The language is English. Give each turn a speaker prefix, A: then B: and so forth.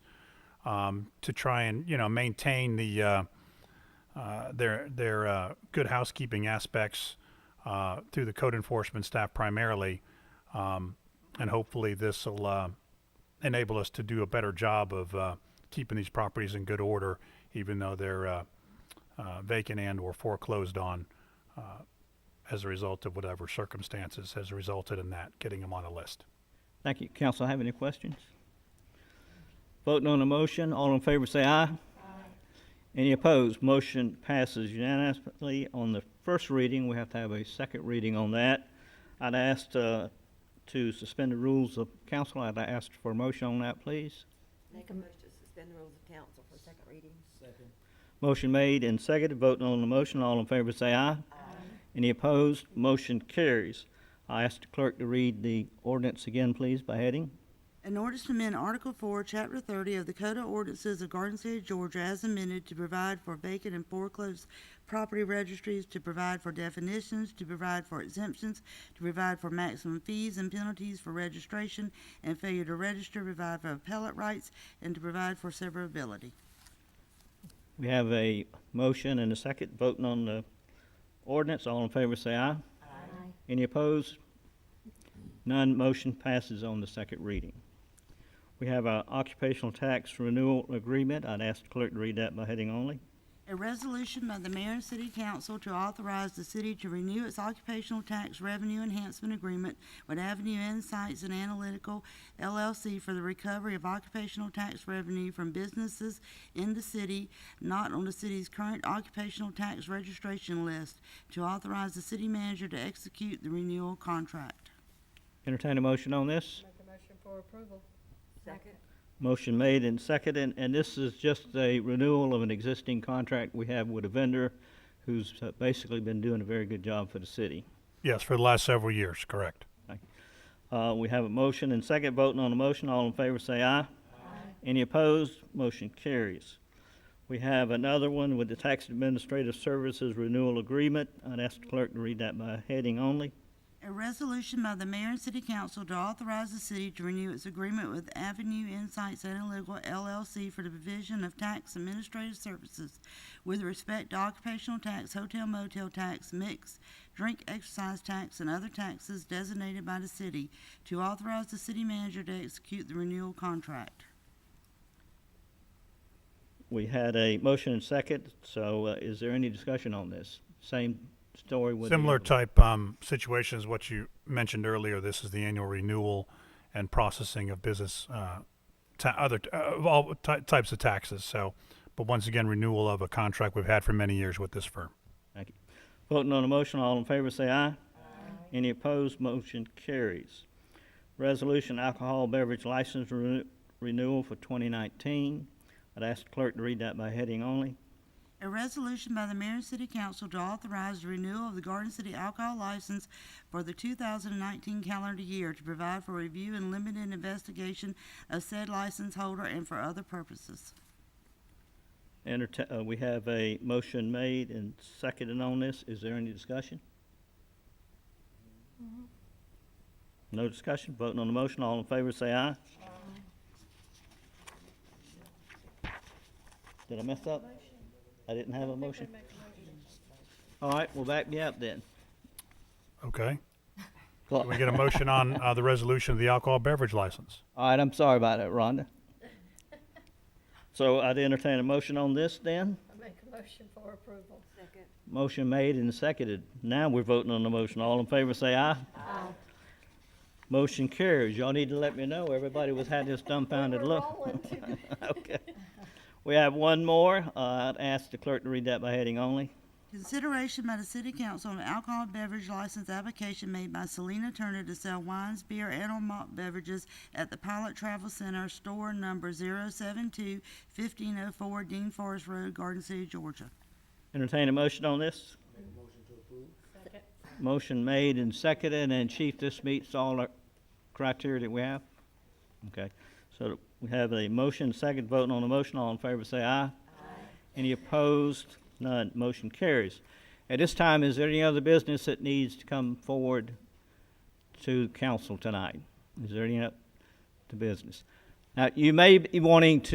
A: um, to try and you know maintain the uh, uh, their their uh, good housekeeping aspects uh, through the code enforcement staff primarily, um, and hopefully this will uh, enable us to do a better job of uh, keeping these properties in good order, even though they're uh, uh, vacant and or foreclosed on uh, as a result of whatever circumstances has resulted in that getting them on a list.
B: Thank you. Council, have any questions? Voting on the motion, all in favor say aye. Any opposed? Motion passes unanimously on the first reading. We have to have a second reading on that. I'd asked uh, to suspend the rules of council. I'd ask for a motion on that, please.
C: Make a motion to suspend the rules of council for second reading.
B: Motion made and seconded. Voting on the motion, all in favor say aye. Any opposed? Motion carries. I ask the clerk to read the ordinance again, please, by heading.
D: An ordinance to amend Article Four, Chapter thirty of the Code of Ordinances of Garden City, Georgia as amended to provide for vacant and foreclosed property registries, to provide for definitions, to provide for exemptions, to provide for maximum fees and penalties for registration and failure to register, provide for appellate rights, and to provide for severability.
B: We have a motion and a second voting on the ordinance. All in favor say aye.
C: Aye.
B: Any opposed? None. Motion passes on the second reading. We have our occupational tax renewal agreement. I'd ask the clerk to read that by heading only.
D: A resolution by the mayor and city council to authorize the city to renew its occupational tax revenue enhancement agreement with Avenue Insights and Analytical LLC for the recovery of occupational tax revenue from businesses in the city not on the city's current occupational tax registration list, to authorize the city manager to execute the renewal contract.
B: Entertain a motion on this?
E: Make a motion for approval.
C: Second.
B: Motion made and seconded, and, and this is just a renewal of an existing contract we have with a vendor who's uh, basically been doing a very good job for the city.
A: Yes, for the last several years, correct.
B: Uh, we have a motion and second voting on the motion. All in favor say aye. Any opposed? Motion carries. We have another one with the Tax Administrative Services Renewal Agreement. I'd ask the clerk to read that by heading only.
D: A resolution by the mayor and city council to authorize the city to renew its agreement with Avenue Insights Analytical LLC for the provision of tax administrative services with respect to occupational tax, hotel motel tax, mix, drink exercise tax, and other taxes designated by the city to authorize the city manager to execute the renewal contract.
B: We had a motion and second, so uh, is there any discussion on this? Same story with the
A: Similar
B: other one.
A: type um, situation is what you mentioned earlier. This is the annual renewal and processing of business, uh, ta- other t- uh, of all ty- types of taxes. So, but once again, renewal of a contract we've had for many years with this firm.
B: Thank you. Voting on the motion, all in favor say aye. Any opposed, motion carries. Resolution alcohol beverage license renew- renewal for 2019. I'd ask the clerk to read that by heading only.
D: A resolution by the mayor and city council to authorize the renewal of the Garden City alcohol license for the two thousand and nineteen calendar year to provide for review and limited investigation of said license holder and for other purposes.
B: Enterta- uh, we have a motion made and seconded on this. Is there any discussion? No discussion. Voting on the motion, all in favor say aye. Did I mess up? I didn't have a motion? All right, well, back me up then.
A: Okay.
B: All
A: Can we get a motion on uh, the resolution of the alcohol beverage license?
B: right, I'm sorry about that, Rhonda. So I'd entertain a motion on this then.
E: I make a motion for approval.
C: Second.
B: Motion made and seconded. Now we're voting on the motion. All in favor say aye. Aye. Motion carries. Y'all need to let me know. Everybody was had this dumbfounded
E: We're
B: look.
E: rolling to-
B: Okay. We have one more. Uh, I'd ask the clerk to read that by heading only.
D: Consideration by the city council of an alcohol beverage license application made by Selena Turner to sell wines, beer, and or malt beverages at the Pilot Travel Center, store number 072-1504 Dean Forest Road, Garden City, Georgia.
B: Entertain a motion on this? motion made and seconded, and Chief, this meets all the criteria that we have? Okay, so we have a motion, second voting on the motion, all in favor say aye. Any opposed? None, motion carries. At this time, is there any other business that needs to come forward to council tonight? Is there any, other business? Now, you may be wanting to